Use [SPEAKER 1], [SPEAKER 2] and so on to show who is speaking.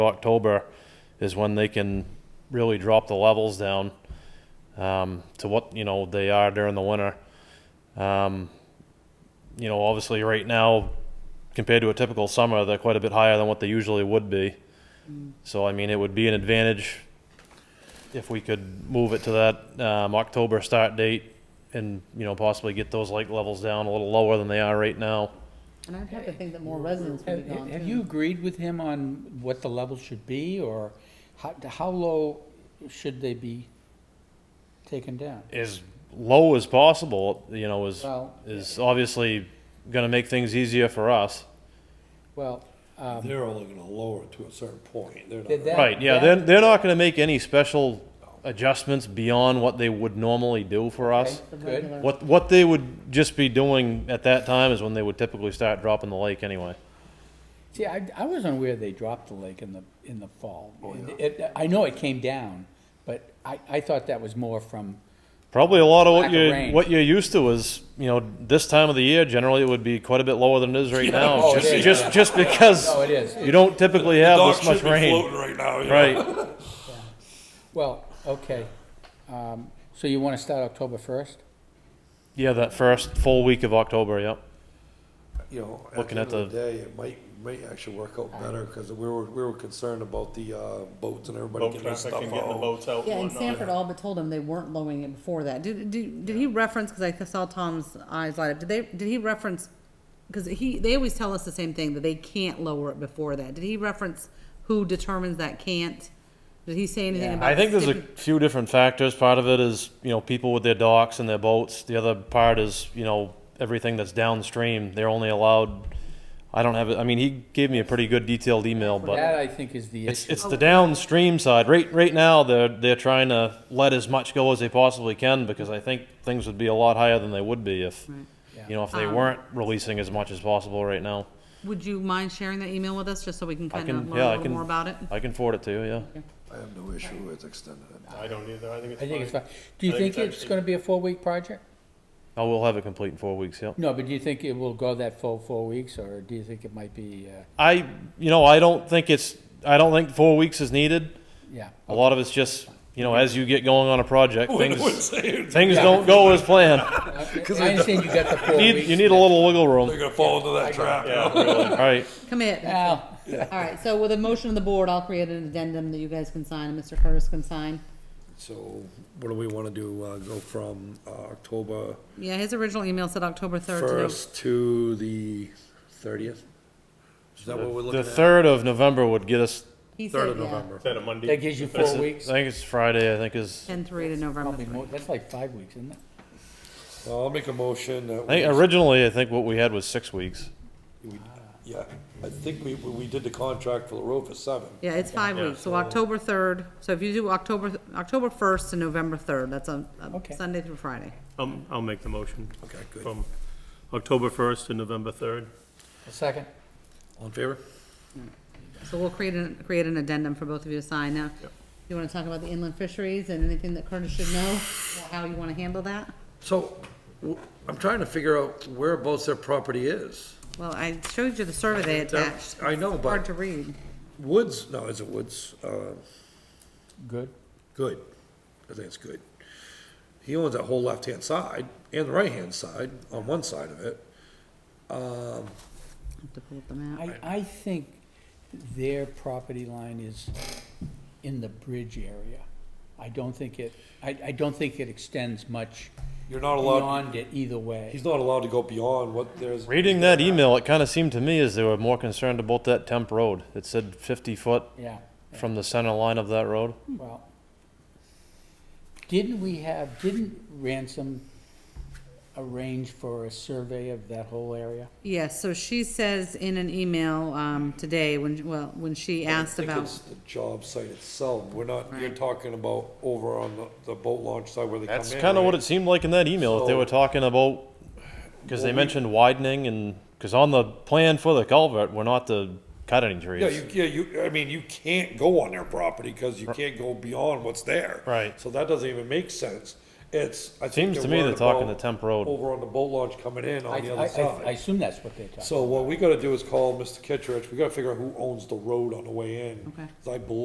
[SPEAKER 1] October is when they can really drop the levels down um, to what you know they are during the winter. Um, you know, obviously, right now compared to a typical summer, they're quite a bit higher than what they usually would be. So I mean, it would be an advantage if we could move it to that um, October start date and you know possibly get those lake levels down a little lower than they are right now.
[SPEAKER 2] And I'd have to think that more residents would
[SPEAKER 3] Have,
[SPEAKER 2] be gone
[SPEAKER 3] have you
[SPEAKER 2] too.
[SPEAKER 3] agreed with him on what the level should be, or how, how low should they be taken down?
[SPEAKER 1] as low as possible, you know, is,
[SPEAKER 3] Well-
[SPEAKER 1] is obviously gonna make things easier for us.
[SPEAKER 3] Well, um,
[SPEAKER 4] They're only gonna lower it to a certain point. They're not
[SPEAKER 3] Did
[SPEAKER 4] gonna-
[SPEAKER 3] that-
[SPEAKER 1] Right, yeah, they're, they're not gonna make any special adjustments beyond what they would normally do for us.
[SPEAKER 2] The
[SPEAKER 3] Good.
[SPEAKER 2] regular-
[SPEAKER 1] What, what they would just be doing at that time is when they would typically start dropping the lake anyway.
[SPEAKER 3] see, I, I was unaware they dropped the lake in the, in the fall. It- I know it came down, but I, I thought that was more from,
[SPEAKER 1] Probably a lot of
[SPEAKER 3] Lack
[SPEAKER 1] what
[SPEAKER 3] of
[SPEAKER 1] you're,
[SPEAKER 3] rain.
[SPEAKER 1] what you're used to is, you know, this time of the year, generally it would be quite a bit lower than it is right now.
[SPEAKER 3] Oh, it
[SPEAKER 1] Just,
[SPEAKER 3] is,
[SPEAKER 1] just, just because
[SPEAKER 3] oh, it is.
[SPEAKER 1] you don't typically have this much rain.
[SPEAKER 4] right now, you know?
[SPEAKER 1] Right,
[SPEAKER 3] Well, okay. Um, So you want to start October 1st?
[SPEAKER 1] yeah, that first full week of October, yep.
[SPEAKER 4] You know, at
[SPEAKER 1] Looking
[SPEAKER 4] the
[SPEAKER 1] at
[SPEAKER 4] end of
[SPEAKER 1] the-
[SPEAKER 4] the day, it might, might actually work out better, cause we were, we were concerned about the, uh, boats and everybody
[SPEAKER 5] boat
[SPEAKER 4] getting their
[SPEAKER 5] traffic
[SPEAKER 4] stuff
[SPEAKER 5] and getting the
[SPEAKER 4] out.
[SPEAKER 5] boats out
[SPEAKER 2] Yeah,
[SPEAKER 5] and
[SPEAKER 2] and
[SPEAKER 5] whatnot.
[SPEAKER 2] Sanford all but told him they weren't lowering it before that. Did, did, did he reference, because I saw Tom's eyes light up, did they, did he reference, because he, they always tell us the same thing, that they can't lower it before that. Did he reference who determines that can't? Did he say anything about?
[SPEAKER 1] I think there's a
[SPEAKER 2] stipu-
[SPEAKER 1] few different factors. Part of it is, you know, people with their docks and their boats. The other part is, you know, everything that's downstream. They're only allowed, I don't have, it. I mean, he gave me a pretty good detailed email, but
[SPEAKER 3] That, I think, is the
[SPEAKER 1] it's,
[SPEAKER 3] issue.
[SPEAKER 1] it's the downstream side. Right, right now, they're, they're trying to let as much go as they possibly can because I think things would be a lot higher than they would be if, you know, if they
[SPEAKER 2] Um,
[SPEAKER 1] weren't releasing as much as possible right now.
[SPEAKER 2] Would you mind sharing that email with us, just so we can
[SPEAKER 1] I
[SPEAKER 2] kind of
[SPEAKER 1] can,
[SPEAKER 2] learn
[SPEAKER 1] yeah,
[SPEAKER 2] a
[SPEAKER 1] I
[SPEAKER 2] little
[SPEAKER 1] can.
[SPEAKER 2] more about it?
[SPEAKER 1] I can forward it to you, yeah.
[SPEAKER 4] I have no issue with extending it.
[SPEAKER 5] I don't either. I think it's
[SPEAKER 3] I think it's
[SPEAKER 5] fine.
[SPEAKER 3] fine. Do you
[SPEAKER 5] I think
[SPEAKER 3] think
[SPEAKER 5] it's
[SPEAKER 3] it's going to be a four-week project?
[SPEAKER 1] I will have it complete in four weeks, yep.
[SPEAKER 3] No, but do you think it will go that full four weeks, or do you think it might be, uh,
[SPEAKER 1] I, you know, I don't think it's, I don't think four weeks is needed.
[SPEAKER 3] yeah?
[SPEAKER 1] A lot of it's just, you know, as you get going on a project, things,
[SPEAKER 4] Things.
[SPEAKER 1] things
[SPEAKER 3] Yeah.
[SPEAKER 1] don't go as planned.
[SPEAKER 3] I I understand you got the four
[SPEAKER 1] You need,
[SPEAKER 3] weeks.
[SPEAKER 1] you need a little wiggle
[SPEAKER 4] They're
[SPEAKER 1] room.
[SPEAKER 4] gonna fall into that trap, you know?
[SPEAKER 1] All right.
[SPEAKER 2] Come here.
[SPEAKER 3] Al,
[SPEAKER 2] All right, so with a motion of the board, I'll create an addendum that you guys can sign, and Mr. Curtis can sign.
[SPEAKER 4] So what do we wanna do? Uh, go from, uh, October
[SPEAKER 2] Yeah, his original email said October third to the
[SPEAKER 4] first to the thirtieth? Is that what we're looking
[SPEAKER 1] The
[SPEAKER 4] at?
[SPEAKER 1] third of November would get us,
[SPEAKER 2] He
[SPEAKER 4] Third
[SPEAKER 2] said,
[SPEAKER 4] of
[SPEAKER 2] yeah,
[SPEAKER 4] November.
[SPEAKER 5] Is that a Monday?
[SPEAKER 3] that gives you four
[SPEAKER 1] I
[SPEAKER 3] weeks?
[SPEAKER 1] think it's Friday, I think is,
[SPEAKER 2] ten three to November
[SPEAKER 3] Probably
[SPEAKER 2] three.
[SPEAKER 3] more, that's like five weeks, isn't it?
[SPEAKER 4] Well, I'll make a motion that.
[SPEAKER 1] I think
[SPEAKER 4] we-
[SPEAKER 1] originally, I think what we had was six weeks.
[SPEAKER 4] we- Yeah, I think we, we did the contract for the road for seven.
[SPEAKER 2] Yeah, it's five
[SPEAKER 5] Yeah,
[SPEAKER 2] weeks, so October third, so if you do October, October first to November third, that's a, a
[SPEAKER 3] Okay.
[SPEAKER 2] Sunday through Friday.
[SPEAKER 5] I'll, I'll make the motion.
[SPEAKER 4] Okay, good.
[SPEAKER 5] From October first to November third.
[SPEAKER 3] A second?
[SPEAKER 4] All in favor?
[SPEAKER 2] So we'll create an, create an addendum for both of you to sign now. You wanna talk about the inland fisheries and anything that Curtis should know, or how you wanna handle that?
[SPEAKER 4] So, w- I'm trying to figure out whereabouts their property is.
[SPEAKER 2] Well, I showed you the survey they attached.
[SPEAKER 4] I know,
[SPEAKER 2] It's Hard
[SPEAKER 4] but
[SPEAKER 2] to read.
[SPEAKER 4] Woods, no, is it Woods? Uh,
[SPEAKER 3] Good.
[SPEAKER 4] Good. I think it's good. He owns that whole left-hand side and the right-hand side on one side of it.
[SPEAKER 2] Have to pull up the map.
[SPEAKER 3] I, I think their property line is in the bridge area. I don't think it, I, I don't think it extends much
[SPEAKER 4] You're not allowed,
[SPEAKER 3] beyond it either way.
[SPEAKER 4] he's not allowed to go beyond what there's.
[SPEAKER 1] Reading that email, it kind of seemed to me as they were more concerned about that temp road. It said fifty foot
[SPEAKER 3] Yeah,
[SPEAKER 1] from the center line of that road.
[SPEAKER 3] well. Didn't we have, didn't Ransom arrange for a survey of that whole area?
[SPEAKER 2] Yes, so she says in an email, um, today, when, well, when she asked
[SPEAKER 4] I think
[SPEAKER 2] about,
[SPEAKER 4] it's the job site itself. We're not, you're talking about over on the- the boat launch side where they come in.
[SPEAKER 1] That's kind of what
[SPEAKER 4] right?
[SPEAKER 1] it seemed like in that email, that they were
[SPEAKER 4] So-
[SPEAKER 1] talking about, because they mentioned widening and, because on the plan for the culvert, we're not to cut any
[SPEAKER 4] Yeah, you,
[SPEAKER 1] trees.
[SPEAKER 4] yeah, you, I mean, you can't go on their property because you can't go beyond what's there.
[SPEAKER 1] Right.
[SPEAKER 4] So that doesn't even make sense. It's, I think
[SPEAKER 1] Seems
[SPEAKER 4] they're
[SPEAKER 1] to me they're
[SPEAKER 4] worried
[SPEAKER 1] talking
[SPEAKER 4] about
[SPEAKER 1] to Temp Road.
[SPEAKER 4] Over on the boat launch coming in
[SPEAKER 3] I,
[SPEAKER 4] on the
[SPEAKER 3] I,
[SPEAKER 4] other
[SPEAKER 3] I- I
[SPEAKER 4] side.
[SPEAKER 3] assume that's what they're talking.
[SPEAKER 4] So what we gotta do is call Mr. Kittredge, we gotta figure out who owns the road on the way in.
[SPEAKER 2] Okay.
[SPEAKER 4] 'Cause I believe